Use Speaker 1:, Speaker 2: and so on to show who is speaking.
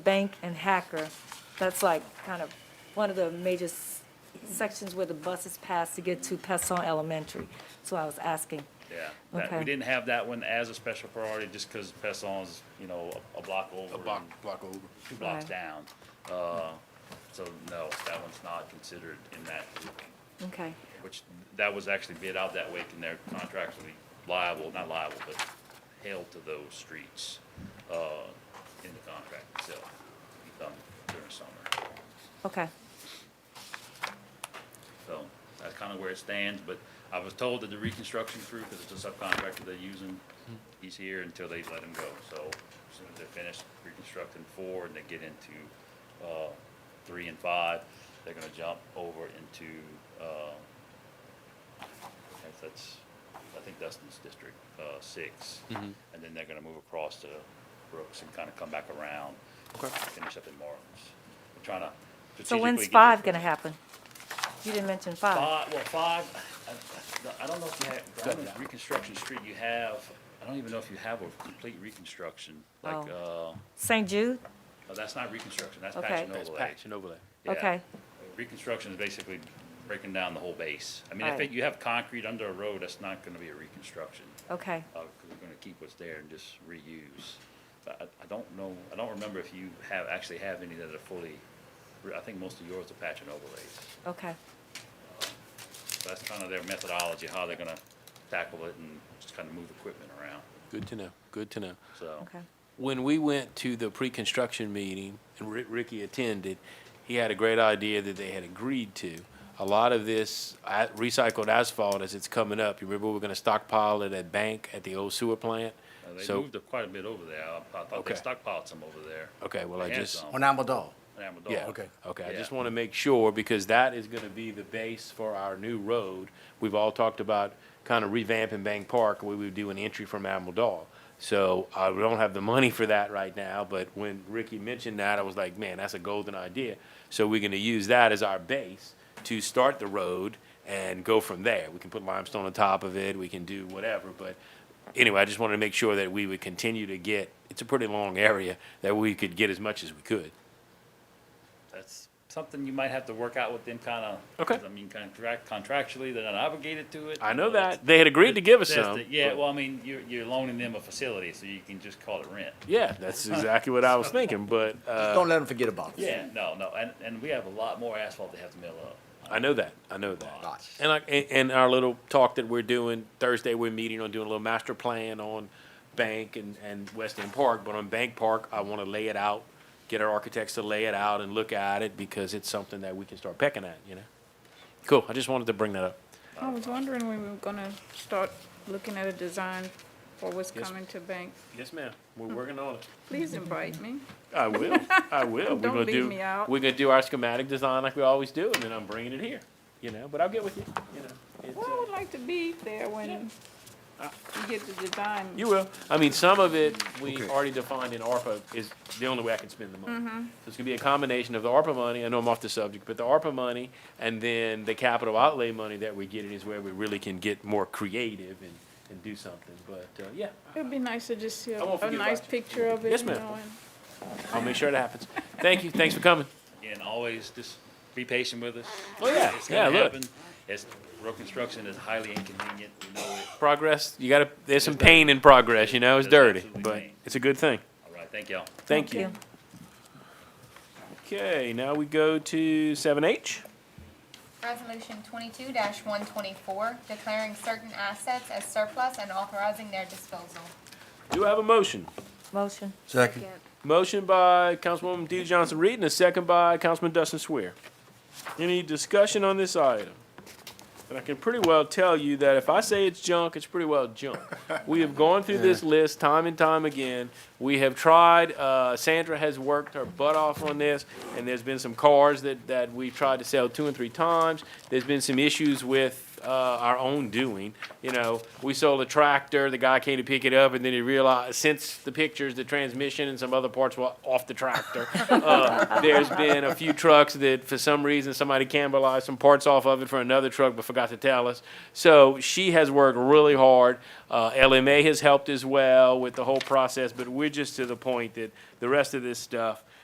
Speaker 1: Bank and Hacker. That's like kind of one of the major s- sections where the buses pass to get to Pesson Elementary. So I was asking.
Speaker 2: Yeah, that,
Speaker 1: Okay.
Speaker 2: we didn't have that one as a special priority just because Peston's, you know, a, a block over.
Speaker 3: A block,
Speaker 2: and
Speaker 3: block over.
Speaker 2: Two blocks
Speaker 1: Right.
Speaker 2: down. Uh, so no, that one's not considered in that,
Speaker 1: Okay,
Speaker 2: which, that was actually bid out that way and they're contractually liable, not liable, but held to those streets, uh, in the contract itself, um, during summer.
Speaker 1: okay,
Speaker 2: So that's kind of where it stands, but I was told that the reconstruction crew, because it's a subcontractor they're using, he's here until they let him go. So as soon as they're finished reconstructing four and they get into, uh, three and five, they're gonna jump over into, uh, I think that's, I think Dustin's district, uh, six. And then they're gonna move across to Brooks and kind of come back around, finish up in Marlins. We're trying to
Speaker 1: so
Speaker 2: strategically.
Speaker 1: when's
Speaker 2: get this-
Speaker 1: five gonna happen? You didn't mention five.
Speaker 2: Five, well, five, uh, I- I, I don't know if you have, I don't know if Reconstruction Street you have, I don't even know if you have a complete reconstruction, like, uh, no,
Speaker 1: St. Jude?
Speaker 2: that's not reconstruction, that's
Speaker 1: Oh. Okay.
Speaker 2: patch and
Speaker 3: That's
Speaker 2: overlay.
Speaker 3: patch and overlay.
Speaker 2: Yeah.
Speaker 1: Okay.
Speaker 2: Reconstruction is basically breaking down the whole base. I mean, if
Speaker 1: Right.
Speaker 2: it- you have concrete under a road, that's not gonna be a reconstruction,
Speaker 1: Okay,
Speaker 2: uhbecause we we're gonna keep what's there and just reuse. But I, I don't know, I don't remember if you have, actually have any that are fully, re- I think most of yours are patch and overlays.
Speaker 1: okay,
Speaker 2: That's kind of their methodology, how they're gonna tackle it and just kind of move equipment around,
Speaker 4: Good to know. Good to know.
Speaker 2: so.
Speaker 1: okay.
Speaker 4: When we went to the pre-construction meeting and Ri- Ricky attended, he had a great idea that they had agreed to. A lot of this a- recycled asphalt as it's coming up. You remember we were going to stockpile it at Bank at the old sewer plant.
Speaker 2: Uh, They
Speaker 4: so
Speaker 2: moved up quite a bit over there, I- I thought they
Speaker 4: Okay.
Speaker 2: stockpiled some over there.
Speaker 4: okay, well I
Speaker 2: They had
Speaker 4: just
Speaker 2: some
Speaker 5: On Amador.
Speaker 2: in Amador.
Speaker 4: yeah
Speaker 5: Okay.
Speaker 4: okay. I
Speaker 2: Yeah.
Speaker 4: just want to make sure because that is going to be the base for our new road. We've all talked about kind of revamping Bank Park. We would do an entry from Amaldahl. So I don't have the money for that right now, but when Ricky mentioned that, I was like, man, that's a golden idea. So we're gonna use that as our base to start the road and go from there. We can put limestone on top of it, we can do whatever, but anyway, I just wanted to make sure that we would continue to get, it's a pretty long area, that we could get as much as we could.
Speaker 2: That's something you might have to work out with them kind of.
Speaker 4: Okay.
Speaker 2: I mean, contract, contractually, they're not obligated to it.
Speaker 4: I know
Speaker 2: you that's-
Speaker 4: that, they had agreed to give us
Speaker 2: that's
Speaker 4: some.
Speaker 2: the- Yeah,
Speaker 4: but-
Speaker 2: well, I mean, you're, you're loaning them a facility, so you can just call it rent.
Speaker 4: Yeah, that's exactly what I was thinking, but, uh,
Speaker 5: Don't let them forget about us.
Speaker 2: Yeah, no, no, and, and we have a lot more asphalt they have to mill up.
Speaker 4: I know that, I know that.
Speaker 5: Lots.
Speaker 4: And like, and, and our little talk that we're doing Thursday, we're meeting on doing a little master plan on Bank and, and West End Park. But on Bank Park, I want to lay it out, get our architects to lay it out and look at it because it's something that we can start pecking at, you know? Cool. I just wanted to bring that up.
Speaker 6: I was wondering when we were gonna start looking at a design for what's
Speaker 4: Yes.
Speaker 6: coming to bank.
Speaker 4: Yes, ma'am. We're working on it.
Speaker 6: Please invite me.
Speaker 4: I will. I will. We're
Speaker 6: Don't
Speaker 4: gonna
Speaker 6: leave
Speaker 4: do-
Speaker 6: me out.
Speaker 4: We're gonna do our schematic design like we always do, and then I'm bringing it here, you know, but I'll get with you, you know. It's,
Speaker 6: Well,
Speaker 4: uh,
Speaker 6: I would like to be there when you get the design.
Speaker 4: You will. I mean, some of it, we
Speaker 5: Okay.
Speaker 4: already defined in ARPA is the only way I can spend the money.
Speaker 6: Mm-hmm.
Speaker 4: So it's gonna be a combination of the ARPA money, I know I'm off the subject, but the ARPA money and then the capital outlay money that we're getting is where we really can get more creative and, and do something, but, uh, yeah.
Speaker 6: It'd be nice to just see
Speaker 4: I
Speaker 6: a,
Speaker 4: won't
Speaker 6: a
Speaker 4: forget
Speaker 6: nice
Speaker 4: about you.
Speaker 6: picture of it.
Speaker 4: Yes,
Speaker 6: you
Speaker 4: ma'am.
Speaker 6: know, and-
Speaker 4: I'll make sure it happens. Thank you, thanks for coming.
Speaker 2: And always just be patient with us.
Speaker 4: Oh, yeah,
Speaker 2: It's
Speaker 4: yeah,
Speaker 2: gonna
Speaker 4: look,
Speaker 2: happen. It's, road construction is highly inconvenient, we know it.
Speaker 4: progress, you gotta, there's some
Speaker 2: It's
Speaker 4: pain in progress, you know, it's
Speaker 2: It's
Speaker 4: dirty,
Speaker 2: absolutely
Speaker 4: but
Speaker 2: pain.
Speaker 4: it's a good thing.
Speaker 2: All right, thank y'all.
Speaker 4: Thank you. Okay, now we go to seven H.
Speaker 7: Resolution twenty-two one twenty-four, declaring certain assets as surplus and authorizing their disposal.
Speaker 4: Do I have a motion?
Speaker 1: Motion,
Speaker 5: Second.
Speaker 4: Motion by Councilwoman Dee Johnson Reed and a second by Councilman Dustin Swear. Any discussion on this item? And I can pretty well tell you that if I say it's junk, it's pretty well junk. We have gone through this list time and time again. We have tried, uh, Sandra has worked her butt off on this, and there's been some cars that, that we've tried to sell two and three times. There's been some issues with, uh, our own doing. You know, we sold a tractor, the guy came to pick it up, and then he realized, since the pictures, the transmission and some other parts were off the tractor. Uh, There's been a few trucks that, for some reason, somebody cannibalized some parts off of it for another truck, but forgot to tell us. So she has worked really hard. Uh, LMA has helped as well with the whole process, but we're just to the point that the rest of this stuff,